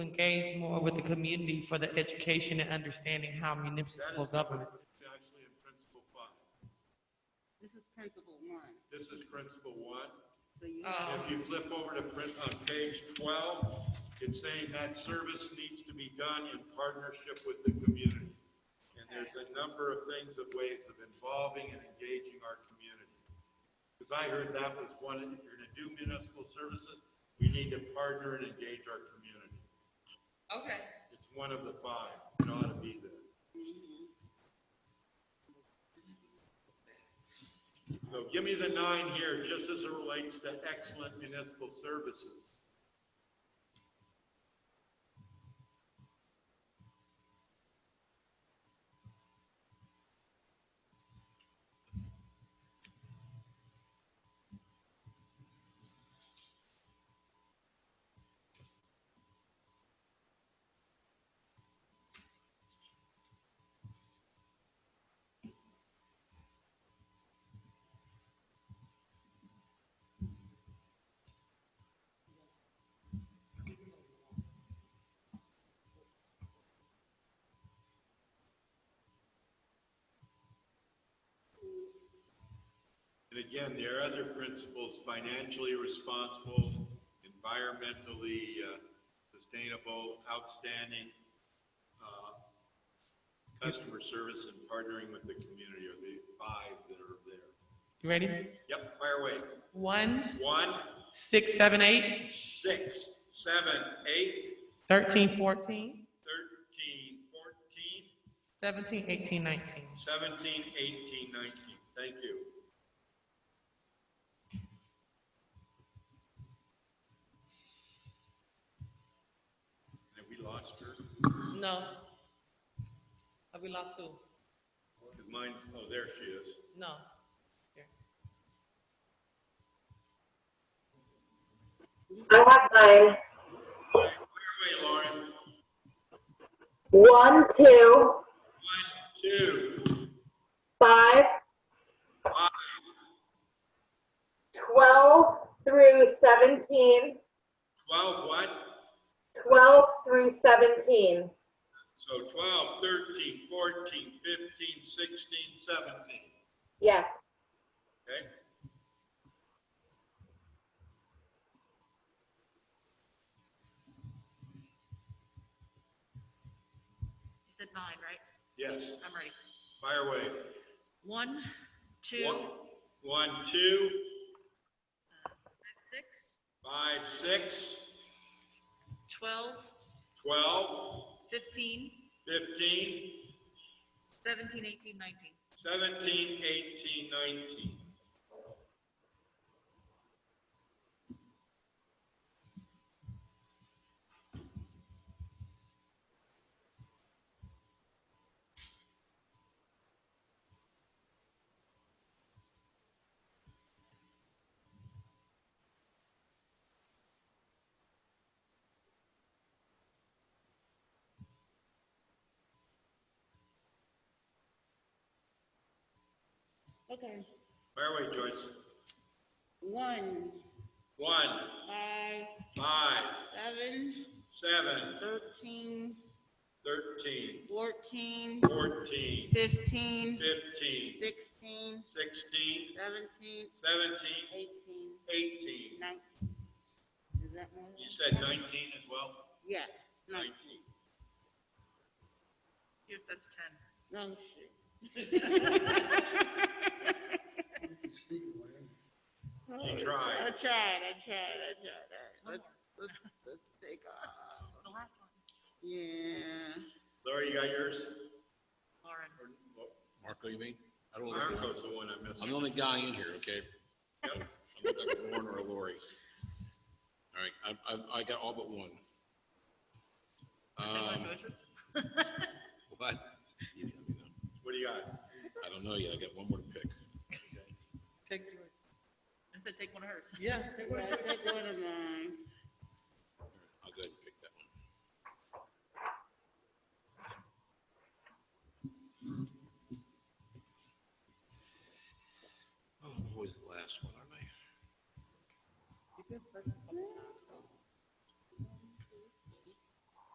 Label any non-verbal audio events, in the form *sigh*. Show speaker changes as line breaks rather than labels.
engage more with the community for the education and understanding how municipal government.
It's actually in principle five.
This is principle one,
This is principle one.
so you,
If you flip over to print on page twelve, it's saying that service needs to be done in partnership with the community. And there's a number of things of ways of involving and engaging our community. Because I heard that was one, if you're gonna do municipal services, we need to partner and engage our community.
Okay.
It's one of the five, it ought to be there. So give me the nine here, just as it relates to excellent municipal services. And again, there are other principles, financially responsible, environmentally uh, sustainable, outstanding, uh, customer service and partnering with the community are the five that are there.
You ready?
Yep, fire away.
One,
One,
six, seven, eight,
six, seven, eight,
thirteen, fourteen,
thirteen, fourteen,
seventeen, eighteen, nineteen.
17, 18, 19. Thank you. Have we lost her?
No. Have we lost who?
Because mine, oh, there she is.
No. Here.
I have mine.
All right, Wait, Lauren.
One, two,
One, two,
five,
five,
12 through 17,
12, what?
12 through 17,
So 12, 13, 14, 15, 16, 17.
yes.
Okay?
You said nine, right?
Yes,
I'm ready.
fire away.
One, two,
One, one, two,
Uh, six,
five, six,
twelve,
12,
fifteen,
15,
seventeen, eighteen, nineteen.
17, 18, 19.
okay,
Fire away, Joyce.
one,
1,
five,
5,
seven,
7,
thirteen,
13,
fourteen,
14,
fifteen,
15,
sixteen,
16,
seventeen,
17,
eighteen,
18.
nineteen. Is that one?
You said 19 as well?
Yes, nineteen,
Here, that's ten.
no shit.
You tried.
I tried, I tried, I tried. All right, Let's, let's, let's take off.
The last one.
Yeah.
Laura, you got yours?
Lauren.
Marco, you mean? I don't look like,
Marco's the one I missed.
I'm the only guy in here, okay?
Yep.
I look like Warren or Lori. All right, I, I, I got all but one.
Okay,
Um,
my *laughs* choices?
what? Easy, I mean,
What do you got?
I don't know yet, I got one more to pick.
Take yours.
I said take one of hers.
Yeah.
Right, take one of mine.
Oh,